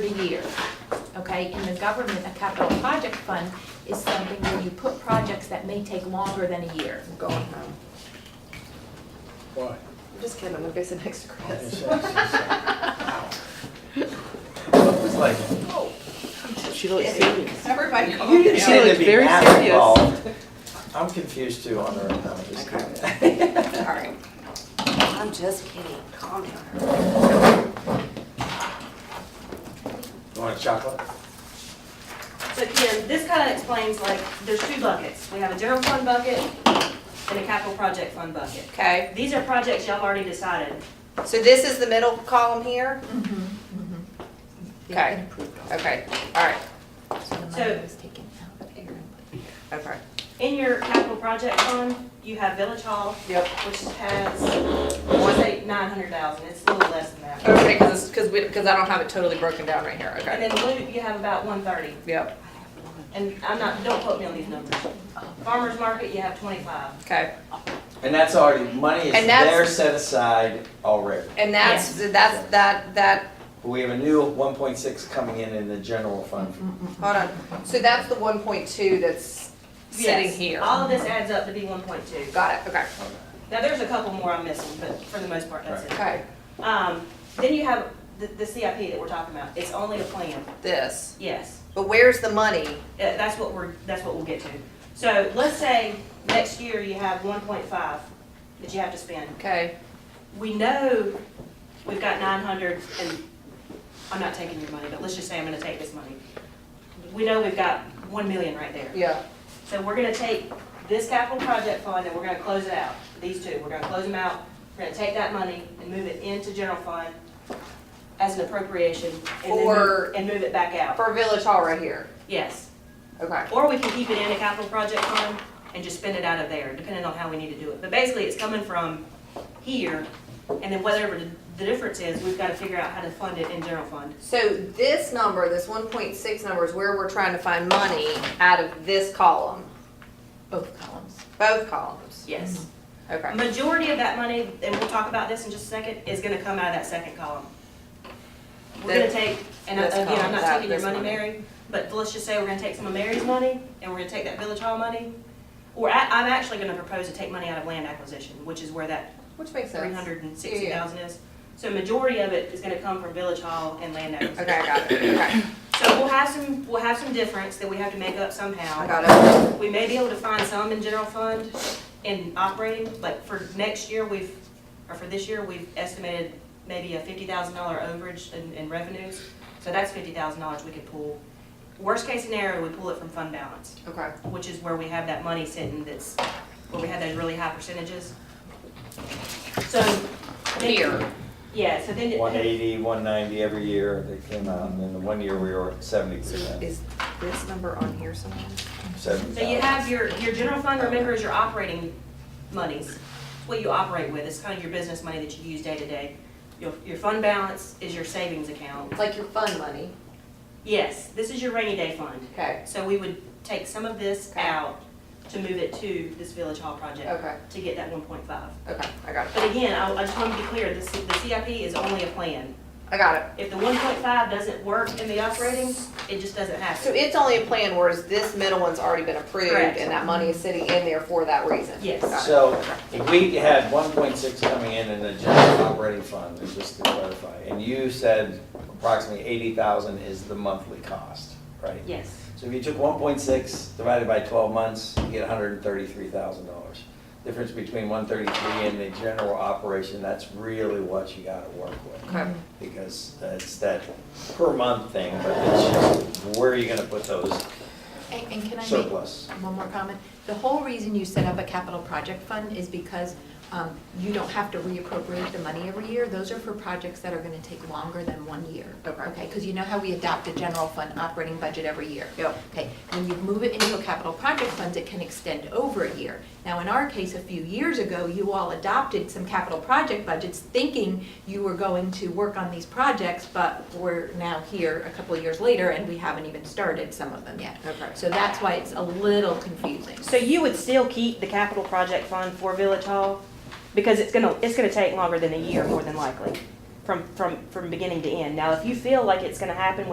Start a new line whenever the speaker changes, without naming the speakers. per year, okay? In the government, a capital project fund is something where you put projects that may take longer than a year.
I'm going home.
Why?
um, I'm just kidding, I'm gonna go sit next to Chris.
It's like,
She looks serious.
Everybody
you didn't
She
seem to
looked
be
very
that
serious.
involved. I'm confused too on her, no, I'm just
Okay.
kidding.
Sorry. I'm just kidding, calm down.
You want a chocolate?
So again, this kind of explains like, there's two buckets. We have a general fund bucket and a capital project fund bucket.
Okay,
These are projects y'all already decided.
so this is the middle column here?
They've
Okay.
been approved already.
Okay, all right,
So the money
So-
was taken out of here and put here.
okay.
In your capital project fund, you have Village Hall,
Yep.
which has, let's say, nine hundred thousand. It's a little less than that.
Okay, because, because we, because I don't have it totally broken down right here,
And
okay.
then loot, you have about one thirty.
Yep,
And I'm not, don't quote me on these numbers. Farmer's Market, you have twenty-five.
okay.
And that's already, money is
And that's-
there set aside already.
And that's, that's, that, that,
We have a new one point six coming in in the general fund.
hold on. So that's the one point two that's sitting
Yes.
here.
All of this adds up to be one point two.
Got it, okay,
Okay.
Now, there's a couple more I'm missing, but for the most part, that's it.
okay.
Um, then you have the, the CIP that we're talking about. It's only a plan.
This,
Yes,
but where's the money?
Uh, that's what we're, that's what we'll get to. So let's say next year you have one point five that you have to spend.
Okay,
We know we've got nine hundred and, I'm not taking your money, but let's just say I'm gonna take this money. We know we've got one million right there.
yeah,
So we're gonna take this capital project fund and we're gonna close it out, these two, we're gonna close them out. We're gonna take that money and move it into general fund as an appropriation and then
Or-
move, and move it back out,
for Village Hall right here,
yes.
okay.
Or we can keep it in a capital project fund and just spend it out of there, depending on how we need to do it. But basically, it's coming from here, and then whatever the- the difference is, we've got to figure out how to fund it in general fund.
So this number, this one point six number is where we're trying to find money out of this column,
Both columns.
both columns.
Yes.
Okay,
Majority of that money, and we'll talk about this in just a second, is going to come out of that second column. We're going
That-
to take, and I-
this
again, I'm
column,
not
that-
taking your
this
money,
money.
Mary, but let's just say we're going to take some of Mary's money, and we're going to take that village hall money. Or I- I'm actually going to propose to take money out of land acquisition, which is where that
which makes sense.
three hundred and sixty thousand is. So majority of it is gonna come from village hall and land acquisition.
Okay, I got it, okay,
So we'll have some, we'll have some difference that we have to make up
I
somehow.
got it.
We may be able to find some in general fund in operating, like for next year, we've, or for this year, we've estimated maybe a fifty thousand dollar overage in, in revenues. So that's fifty thousand dollars we could pull. Worst case scenario, we pull it from fund balance
Okay,
which is where we have that money sitting that's, where we have those really high percentages. So. then-
Here.
Yeah, so then. it-
180, 190 every year that came out, and then the one year we were at seventy
so
percent,
is this number on here somewhere?
seventy
So you
thousand.
have your, your general fund, remember, is your operating monies, It's what you operate with, it's kind of your business money that you use day to day. Your, your fund balance is your savings account.
It's like your fund money,
Yes, this is your rainy day fund.
okay,
So we would take some of this
Okay.
out to move it to this village hall project
okay,
to get that one point five.
okay, I got it,
But again, I, I just want to be clear, the, C- the CIP is only a plan.
I got it.
If the one point five doesn't work in the operating, it just doesn't
So
happen.
it's only a plan whereas this middle one's already been approved
Correct.
and that money is sitting in there for that reason?
Yes.
Got it.
So if we had one point six coming in in the general operating fund, and just to clarify, and you said approximately eighty thousand is the monthly cost, right?
Yes.
So if you took one point six divided by twelve months, you get hundred and thirty-three thousand dollars. Difference between one thirty-three and the general operation, that's really what you gotta work with.
Okay,
Because it's that per month thing, but it's just, where are you gonna put those
And, and can I make
surplus?
one more comment? The whole reason you set up a capital project fund is because um, you don't have to reappropriate the money every year. Those are for projects that are gonna take longer than one year.
Okay.
Okay, because you know how we adopt a general fund operating budget every year?
Yep.
Okay, when you move it into a capital project fund, it can extend over a year. Now, in our case, a few years ago, you all adopted some capital project budgets thinking you were going to work on these projects, but we're now here a couple of years later and we haven't even started some of them yet.
okay.
So that's why it's a little confusing.
So you would still keep the capital project fund for Village Hall? Because it's gonna, it's gonna take longer than a year, more than likely, from, from, from beginning to end. Now, if you feel like it's gonna happen